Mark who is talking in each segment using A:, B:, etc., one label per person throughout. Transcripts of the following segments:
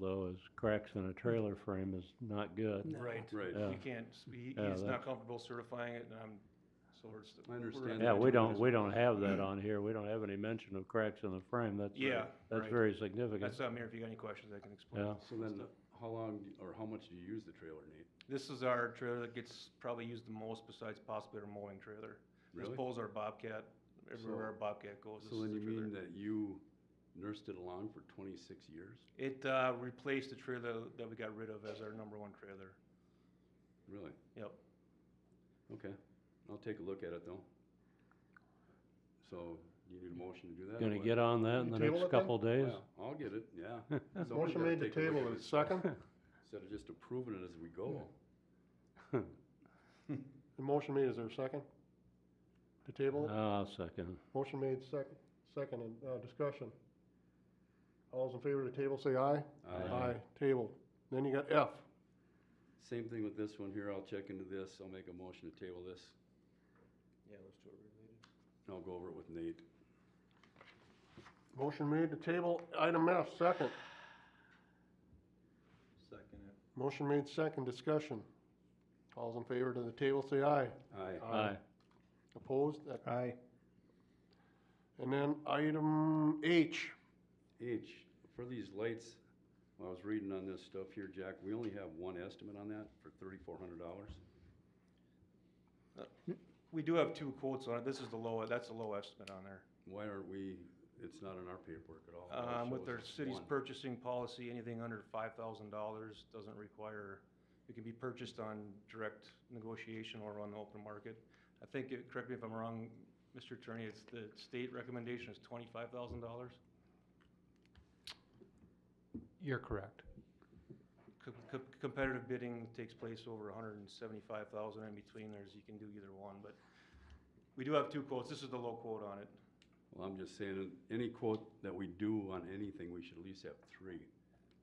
A: though, is cracks in a trailer frame is not good.
B: Mm-hmm. No.
C: Right.
D: Right.
A: Yeah.
C: We can't, s- he,
A: Yeah, that's-
C: he's not comfortable certifying it, and I'm, so we're. st-
D: I
C: we're-
D: understand
A: Yeah,
D: that.
A: we don't, we don't have that on here. We don't have any mention of cracks in the frame. That's, very-
C: Mm-hmm. Yeah,
A: that's
C: right.
A: very significant.
C: That's, I'm here, if you got any questions, I can explain.
A: Yeah.
D: So then, how long, do- or how much do you use the trailer, Nate?
C: This is our trailer that gets probably used the most besides possibly our mowing trailer. This
D: Really?
C: pole's our Bobcat, everywhere our Bobcat goes. this
D: So then
C: is
D: you
C: the trailer.
D: mean that you nursed it along for twenty-six years?
C: It, uh, replaced the trailer that we got rid of as our number one trailer.
D: Really?
C: Yep.
D: Okay. I'll take a look at it though. So you need a motion to do that? or
A: Gonna
D: what?
A: get on that in the
B: Table it
A: next
B: then?
A: couple days.
D: Well, I'll get it, yeah. Somebody's
B: Motion
D: gotta
B: made to
D: take a look
B: table
D: at
B: is
D: this
B: second.
D: Instead of just approving it as we go.
B: The motion made, is there a second? To table?
D: Uh.
B: it?
A: Ah, second.
B: Motion made second, second, and, uh, discussion. All those in favor of the table, say aye.
D: Aye.
B: Table. Then you got F.
D: Same thing with this one here. I'll check into this. I'll make a motion to table this.
C: Yeah, those two are related.
D: I'll go over it with Nate.
B: Motion made to table item F, second.
C: Second it.
B: Motion made second, discussion. All those in favor to the table, say aye.
D: Aye.
A: Aye.
B: Opposed? That-
E: Aye.
B: And then item H.
D: H, for these lights, when I was reading on this stuff here, Jack, we only have one estimate on that for thirty-four hundred dollars.
C: We do have two quotes on it. This is the low, that's the low estimate on there.
D: Why aren't we, it's not in our paperwork at all. It all
C: Um, with
D: shows
C: our
D: us
C: city's
D: one.
C: purchasing policy, anything under five thousand dollars doesn't require, it can be purchased on direct negotiation or on the open market. I think, it- correct me if I'm wrong, Mr. Attorney, it's the state recommendation is twenty-five thousand dollars?
E: You're correct.
C: Competitive bidding takes place over a hundred and seventy-five thousand in between, there's, you can do either one, but we do have two quotes. This is the low quote on it.
D: Well, I'm just saying, any quote that we do on anything, we should at least have three.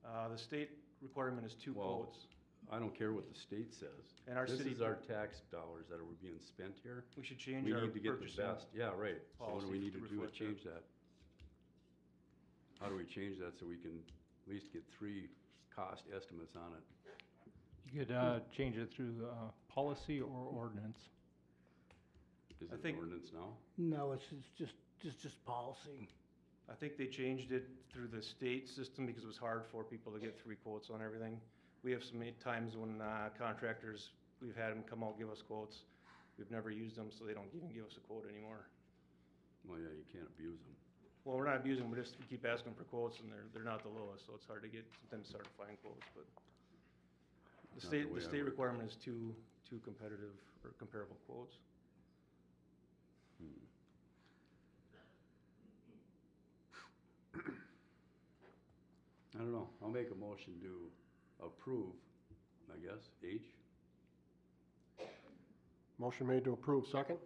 C: Uh, the state requirement is two
D: Well,
C: quotes.
D: I don't care what the state says.
C: And our
D: This
C: city-
D: is our tax dollars that are being spent here.
C: We should
D: We
C: change our
D: need to get the
C: purchasing.
D: best. Yeah, right. So what do
C: policy
D: we need to
C: to
D: do to
C: reflect that.
D: change that? How do we change that so we can at least get three cost estimates on it?
E: You could, uh, change it through, uh, policy or ordinance.
D: Is
C: I
D: it an
C: think-
D: ordinance now?
F: No, it's it's just, just, just policy.
C: I think they changed it through the state system because it was hard for people to get three quotes on everything. We have so many times when uh, contractors, we've had them come out, give us quotes. We've never used them, so they don't even give us a quote anymore.
D: Well, yeah, you can't abuse them.
C: Well, we're not abusing, them, we just keep asking for quotes and they're, they're not the lowest, so it's hard to get, sometimes it's hard to find quotes, but. The
D: the
C: state,
D: way
C: the
D: I
C: state
D: work.
C: requirement is two, two competitive or comparable quotes.
D: I don't know. I'll make a motion to approve, I guess, H.
B: Motion made to approve, second.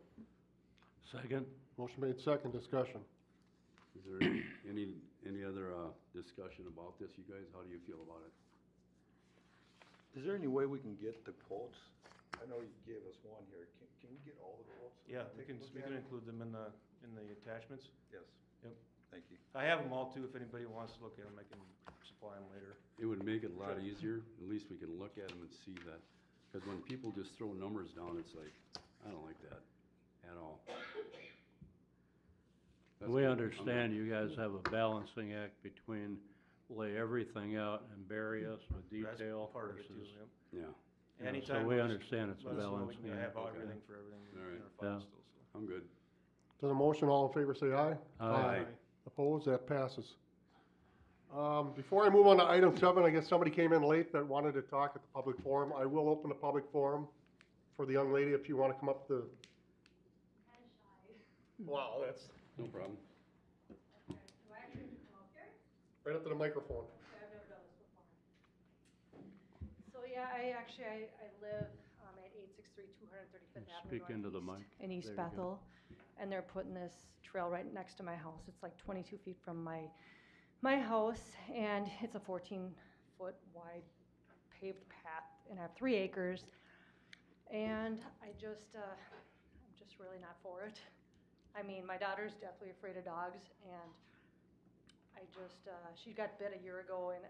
A: Second?
B: Motion made second, discussion.
D: Is there any- any, any other, uh, discussion about this, you guys? How do you feel about it?
G: Is there any way we can get the quotes? I know you gave us one here. Can, can we get all the quotes?
C: Yeah, we
G: Take a
C: can,
G: look
C: we
G: at
C: can
G: it?
C: include them in the, in the attachments.
G: Yes.
C: Yep.
G: Thank you.
C: I have them all too, if anybody wants to look at them, I can supply them later.
D: It would make it a lot easier, at least we can look at them and see that, because when people just throw numbers down, it's like, I don't like that at all. That's
A: We
D: kinda- I'm not-
A: understand you guys have a balancing act between lay everything out and bury us with
C: That's
A: detail
C: part of
A: versus.
C: it too,
A: you
C: yep.
D: Yeah,
A: know, So we
C: Anytime. we'll just
A: understand it's a
C: let us know we
A: balancing
C: can
A: act.
C: Have all-
D: okay.
C: everything for everything
D: All right.
C: in our files
A: Yeah.
C: still, so.
D: I'm good.
B: To the motion, all in favor, say aye.
A: Aye.
B: Opposed, that passes. Um, Before I move on to item seven, I guess somebody came in late that wanted to talk at the public forum. I will open the public forum for the young lady if you want to come up to. Wow, that's.
D: No problem.
B: Right up to the microphone.
H: So, yeah, I actually, I, I live, um, at eight six three two hundred thirty-fifth
A: Yeah,
H: Avenue.
A: speak into the
H: Northeast
A: mic.
H: In East
A: There you go.
H: Bethel, and they're putting this trail right next to my house. It's like twenty-two feet from my, my house, and it's a fourteen-foot wide paved path, and I have three acres. And I just, uh, I'm just really not for it. I mean, my daughter's definitely afraid of dogs, and I just, uh, she got bit a year ago, and I